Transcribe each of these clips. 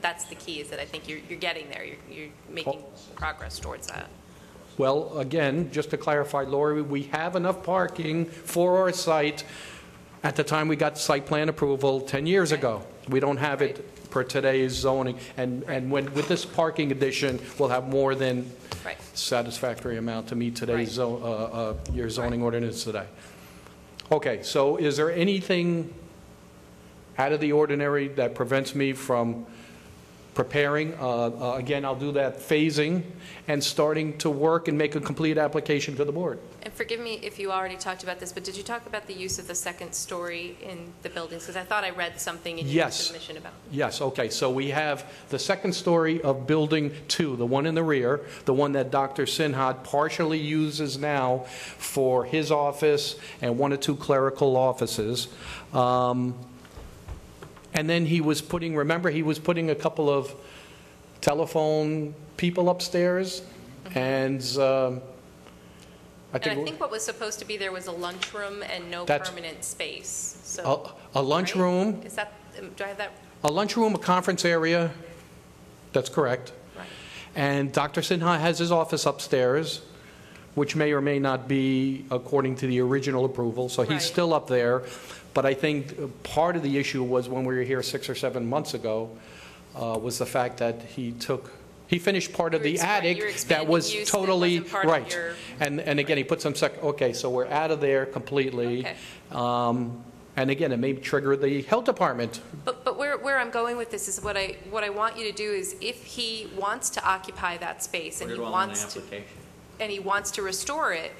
That's the key, is that I think you're, you're getting there. You're, you're making progress towards that. Well, again, just to clarify, Lori, we have enough parking for our site at the time we got site plan approval 10 years ago. We don't have it per today's zoning, and, and when, with this parking addition, we'll have more than Right. satisfactory amount to meet Right. today's, zo- uh, uh, your zoning ordinance today. Okay, so is there anything out of the ordinary that prevents me from preparing. Uh, uh, Again, I'll do that phasing and starting to work and make a complete application to the board. And forgive me if you already talked about this, but did you talk about the use of the second story in the buildings? Because I thought I read something in your Yes. submission about. Yes, okay, so we have the second story of Building 2, the one in the rear, the one that Dr. Sinhad partially uses now for his office and one or two clerical offices. Um, And then he was putting, remember, he was putting a couple of telephone people upstairs? And um, I And think... I think what was supposed to be there was a lunchroom and no That's- permanent space, so. A a lunchroom, Right? Is that, um, do I have that a lunchroom, a conference area, that's correct. right? And Dr. Sinha has his office upstairs, which may or may not be according to the original approval, so Right. he's still up there. But I think uh, part of the issue was when we were here six or seven months ago, uh, was the fact that he took, he finished part of You're the expan- attic you're that expanding was use that totally, wasn't part of right. your- And, and again, he put some sec, okay, so we're out of there completely. Okay. Um, And again, it may trigger the health department But, but where, where I'm going with this is what I, what I want you to do is if he wants to occupy that space and Put he it all in the wants to, application. and he wants to restore it,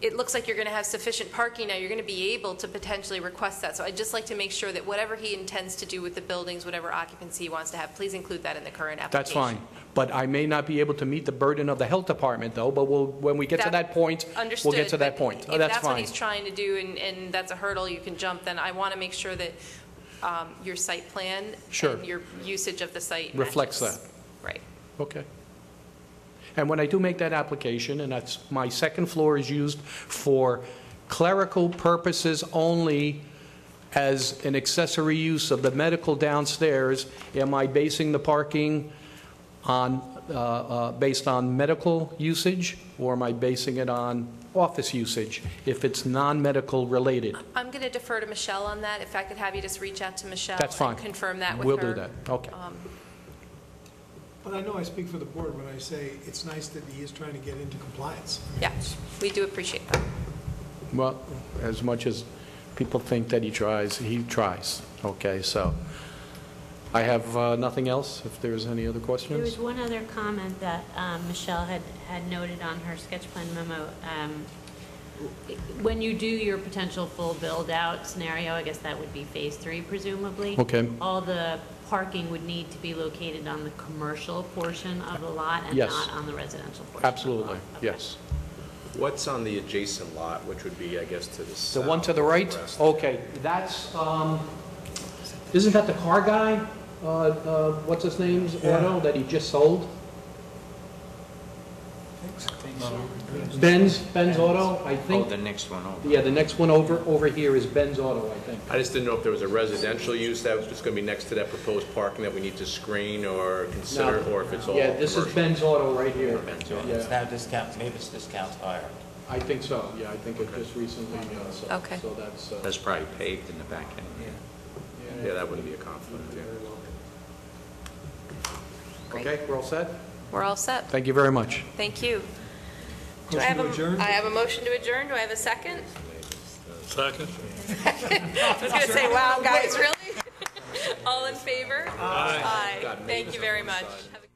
it looks like you're going to have sufficient parking now, you're going to be able to potentially request that. So I'd just like to make sure that whatever he intends to do with the buildings, whatever occupancy he wants to have, please include that in the current application. That's fine. But I may not be able to meet the burden of the health department, though, but we'll, when we get to that point, we'll get to Understood, that but point. Oh, If That's that's what fine. he's trying to do and, and that's a hurdle you can jump, then I want to make sure that um, your site plan Sure. and your usage of the site Reflects matches. that. Right. Okay. And when I do make that application, and that's, my second floor is used for clerical purposes only as an accessory use of the medical downstairs, am I basing the parking on, uh, uh, based on medical usage, or am I basing it on office usage, if it's non-medical related? I'm going to defer to Michelle on that. If I could have you just reach out to Michelle. That's fine. And confirm that with her. Um, We'll do that, okay. But I know I speak for the board when I say it's nice that he is trying to get into compliance. I mean, Yeah, it's- we do appreciate that. Well, as much as people think that he tries, he tries, okay? So I have uh, nothing else, if there's any other There was questions? one other comment that um, Michelle had, had noted on her sketch plan memo. um, When you do your potential full build-out scenario, I guess that would be phase three presumably. Okay. All the parking would need to be located on the commercial portion of the lot and Yes. not on the residential portion. of the lot. Absolutely, Okay. yes. What's on the adjacent lot, which would be, I guess, to the The south? one to the right? west? Okay, that's, um, isn't that the car guy? Uh, uh, What's his name's auto that he just sold? Ben's, Ben's Auto, I Oh, think. the next one over. Yeah, the next one over, over here is Ben's Auto, I think. I just didn't know if there was a residential use that was just going to be next to that proposed parking that we need to screen or consider, No. or if it's all Yeah, this is commercial. Ben's Auto right here. It's now discount, maybe it's discount higher. I think so, yeah, I think it just recently, uh, so, Okay. so that's, uh, That's probably paved in the back end. Yeah, that wouldn't be a conflict, yeah. Great. okay, we're all set? We're all set. Thank you very much. Thank you. Do I Motion have to a- adjourn? I have a motion to adjourn. Do I have a second? Second. I was going to say, wow, guys, really? All in favor? Aye. Thank you very much. Have a-